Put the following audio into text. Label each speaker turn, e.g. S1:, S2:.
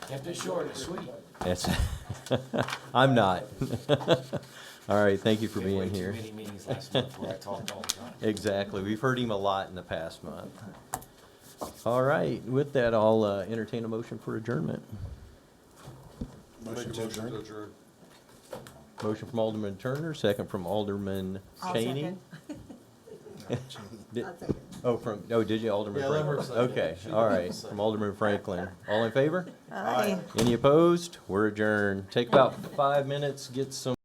S1: Kept it short and sweet.
S2: It's, I'm not. All right, thank you for
S1: Been way
S2: being
S1: too
S2: here.
S1: many meetings last month where I talked all the time.
S2: Exactly, we've heard him a lot in the past month. All right, with that, I'll uh, entertain a motion for adjournment.
S3: Motion to adjourn?
S2: Motion from Alderman Turner, second from Alderman
S4: I'll
S2: Cheney.
S4: second.
S2: Did-
S4: I'll second.
S2: Oh, from, oh, did you, Alderman
S1: Yeah, that works
S2: Franklin?
S1: like that.
S2: Okay,
S1: She
S2: all
S1: did
S2: right,
S1: second.
S2: from Alderman Franklin. All in favor?
S4: Aye.
S2: Any opposed? We're adjourned. Take about five minutes, get some.